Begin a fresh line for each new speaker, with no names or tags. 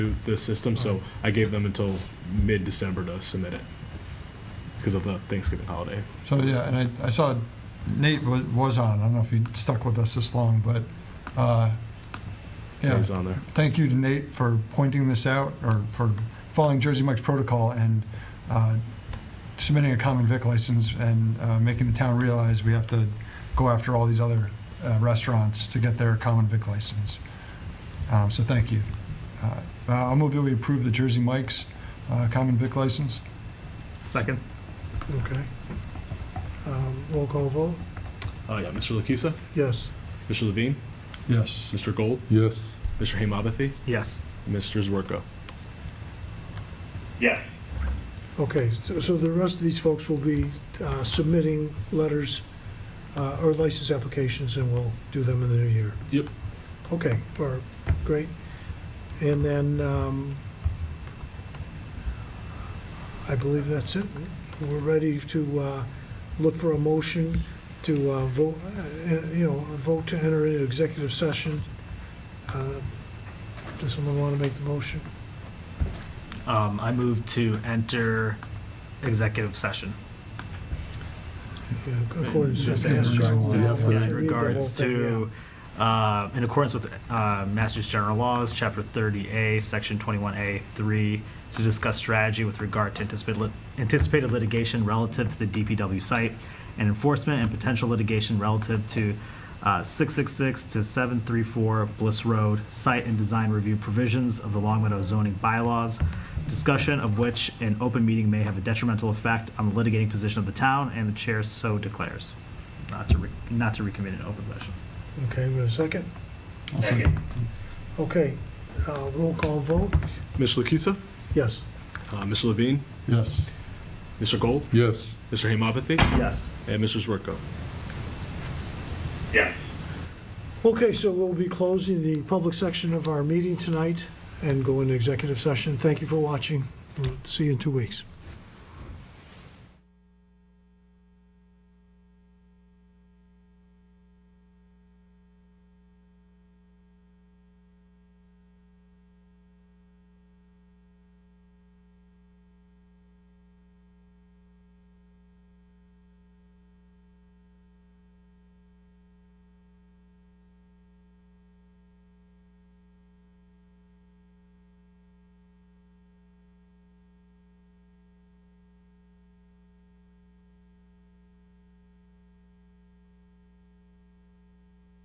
the system, so I gave them until mid-December to submit it because of the Thanksgiving holiday.
So, yeah, and I, I saw Nate wa- was on, I don't know if he stuck with us this long, but, uh, yeah,
It's on there.
thank you to Nate for pointing this out, or for following Jersey Mike's protocol and uh, submitting a common vic license and uh, making the town realize we have to go after all these other uh, restaurants to get their common vic license. Um, So thank you. Uh, I'll move that we approve the Jersey Mike's uh, common vic license.
Second.
Okay. Um, Roll call vote,
Uh, yeah, Mr. Lakisa,
yes.
Mr. Levine,
Yes.
Mr. Gold,
Yes.
Mr. Hamabathy,
Yes.
Mr. Zwerko.
Yes,
Okay, so- so the rest of these folks will be uh, submitting letters uh, or license applications, and we'll do them in the new year.
Yep.
Okay, all right, great. And then, um, I believe that's it. We're ready to uh, look for a motion to uh, vote, uh, you know, vote to enter into executive session. Uh, Does someone want to make the motion?
Um, I move to enter executive session.
Yeah, According to.
Just
Yes,
in
sure.
regards to-
Yeah,
yeah,
please.
Read
In
the
regards
whole thing, yeah.
to, uh, in accordance with, uh, Masters General Laws, Chapter thirty A, Section twenty-one A, three, to discuss strategy with regard to anticipated, lit- anticipated litigation relative to the DPW site and enforcement and potential litigation relative to, uh, six six six to seven three four Bliss Road, site and design review provisions of the Long Meadow zoning bylaws, discussion of which an open meeting may have a detrimental effect on the litigating position of the town, and the chair so declares not to, re- not to reconvene in open session.
Okay, we have a second?
second,
Okay, uh, roll call vote,
Mr. Lakisa,
yes.
uh, Mr. Levine,
Yes.
Mr. Gold,
Yes.
Mr. Hamabathy,
Yes.
and Mr. Zwerko.
yes.
Okay, so we'll be closing the public section of our meeting tonight and go into executive session. Thank you for watching. We'll See you in two weeks.